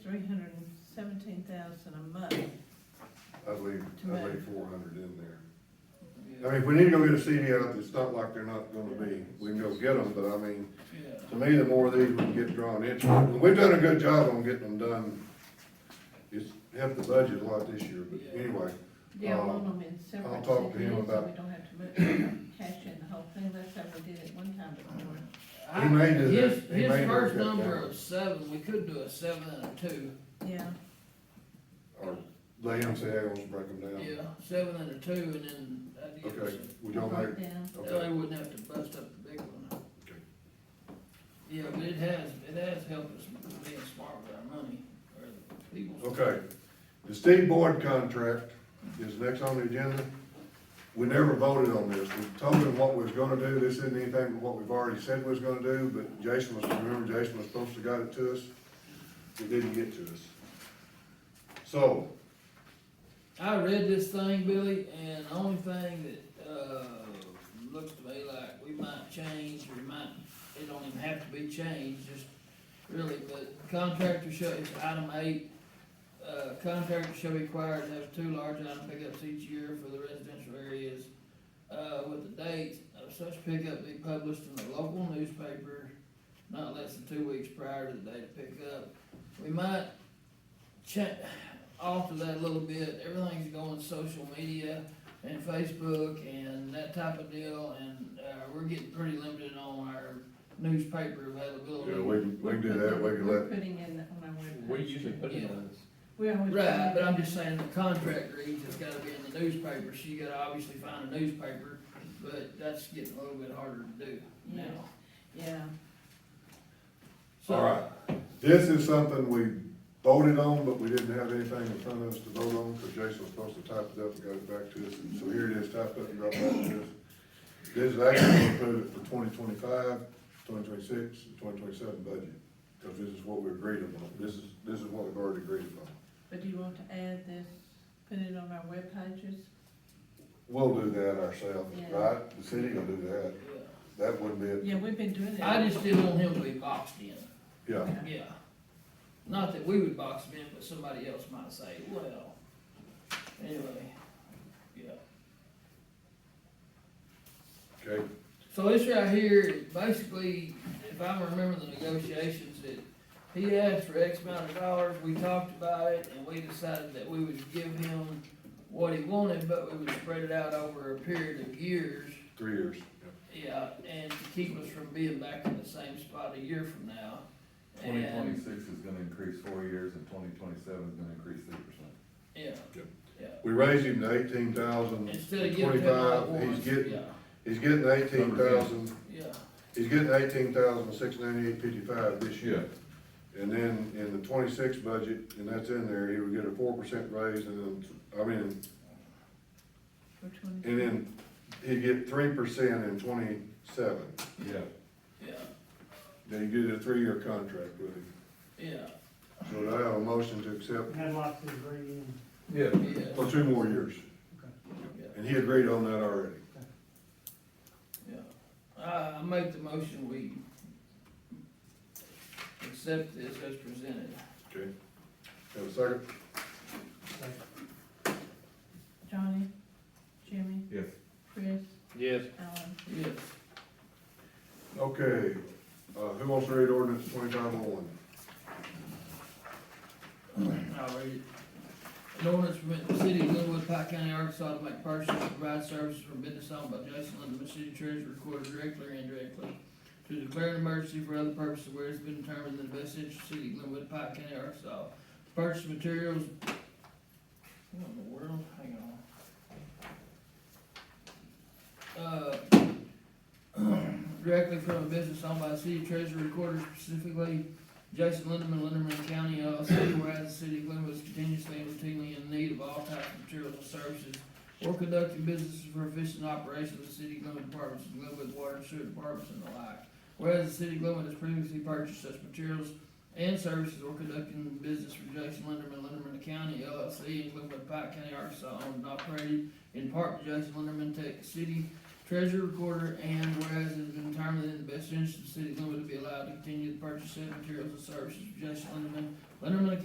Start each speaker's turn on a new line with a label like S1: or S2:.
S1: seventeen thousand a month.
S2: I'd leave,
S1: To
S2: I'd leave
S1: move.
S2: four hundred in there. I mean, if we need to go get a CD out, it's not like they're not gonna be, we can go get them, but I mean, to me, the more of these we can get drawn into, and we've done a good job on getting them done. It's helped the budget a lot this year, but anyway,
S1: Yeah,
S2: I'll-
S1: loan them in separate.
S2: I'll talk to him
S1: CDs,
S2: about-
S1: So we don't have to move, uh, cash in the whole thing, that's how we did it one time before.
S2: He may do that.
S3: His,
S2: He
S3: his
S2: may do
S3: first
S2: that.
S3: number of seven, we could do a seven and a two,
S1: Yeah,
S2: or the MCA wants to break them down.
S3: yeah, seven and a two, and then that gives us,
S2: Okay, would
S1: I
S2: y'all make,
S1: broke down.
S2: okay,
S3: they wouldn't have to bust up the big one.
S2: Okay.
S3: Yeah, but it has, it has helped us being smart with our money, or the people's.
S2: okay. The Steve Boyd contract is next on the agenda. We never voted on this. We told him what we was gonna do. This isn't anything but what we've already said we was gonna do, but Jason was, remember Jason was supposed to got it to us. It didn't get to us. So,
S3: I read this thing, Billy, and the only thing that, uh, looks to me like we might change, or might, it don't even have to be changed, just really, but contractor shall, it's item eight. Uh, contractor shall be required to have two large item pickups each year for the residential areas, uh, with the date of such pickup be published in the local newspaper not less than two weeks prior to the day of pickup. We might check, alter that a little bit, everything's going social media and Facebook and that type of deal, and, uh, we're getting pretty limited on our newspaper availability.
S2: yeah, we, can- we can do that. We can
S1: We're
S2: let,
S1: putting in the- on our webpage.
S4: We usually put it on this.
S1: We always.
S3: Right, but I'm just saying the contract reads, it's gotta be in the newspaper, so you gotta obviously find a newspaper, but that's getting a little bit harder to do now.
S1: Yes. Yeah,
S3: So-
S2: All right. This is something we voted on, but we didn't have anything in front of us to vote on, because Jason was supposed to type it up and got it back to us, and so here it is, typed up and brought back to us. This is actually to approve it for 2025, 2026, and twenty twenty-seven budget, because this is what we agreed upon, this is, this is what we've already agreed upon.
S1: but do you want to add this, put it on our web pages?
S2: We'll do that ourselves,
S1: Yeah.
S2: right? The city will do that,
S3: Yeah.
S2: that wouldn't be,
S1: Yeah, we've been doing it.
S3: I just didn't want him to be boxed in.
S2: it. yeah,
S1: Yeah.
S3: Yeah. Not that we would box them in, but somebody else might say, well, anyway, yeah.
S2: okay,
S3: So this right here, basically, if I remember the negotiations, that he asked for X amount of dollars, we talked about it, and we decided that we would give him what he wanted, but we would spread it out over a period of years.
S2: three years, yeah.
S3: Yeah, and to keep us from being back in the same spot a year from now.
S4: Twenty
S3: And-
S4: twenty-six is gonna increase four years and twenty twenty-seven is gonna increase three percent.
S3: Yeah,
S2: Yep.
S3: yeah.
S2: We raised him to eighteen thousand
S3: Instead
S2: twenty-five.
S3: of giving him all at once,
S2: he's getting,
S3: yeah,
S2: he's getting eighteen thousand
S3: yeah,
S2: He's getting eighteen thousand six ninety-eight fifty-five this year. And then in the twenty-six budget, and that's in there, he would get a four percent raise and then, I mean,
S1: For twenty.
S2: and then he'd get three percent in twenty-seven.
S4: Yeah,
S3: yeah,
S2: Then you get a three-year contract with him.
S3: yeah,
S2: So do I have a motion to accept
S5: We had lots of agree in.
S4: yeah.
S3: yeah,
S2: for two more years.
S3: yeah,
S2: And he agreed on that already.
S3: yeah. I, I make the motion, we accept this as presented.
S2: Okay. Have a second?
S1: Johnny, Jimmy,
S4: Yes.
S1: Chris,
S3: Yes.
S1: Alan,
S3: Yes,
S2: Okay, uh, who wants to read ordinance twenty-five oh one?
S3: I'll read it. An ordinance permitting the city of Glenwood, Pike County, Arkansas to make purchases and provide services for business owned by Jason Lynn, the city treasurer, recorded directly or indirectly, to declare an emergency for other purposes where it's been determined in the best interest of the city of Glenwood, Pike County, Arkansas. Purchase materials. What in the world? Hang on. Uh, directly from a business owned by the city treasurer, recorded specifically, Jason Linderman, Linderman County LLC, whereas the city of Glenwood is continuously and routinely in need of all types of materials and services or conducting businesses for efficient operation of the city of Glenwood departments, the Glenwood Water and Sewer Departments and the like. Whereas the city of Glenwood has previously purchased such materials and services or conducting business for Jason Linderman, Linderman County LLC, and Glenwood Pike County, Arkansas, owned and operated in part by Jason Linderman, Tech City Treasurer Recorder, and whereas it has been determined that in the best interest of the city of Glenwood to be allowed to continue to purchase said materials and services from Jason Linderman, Linderman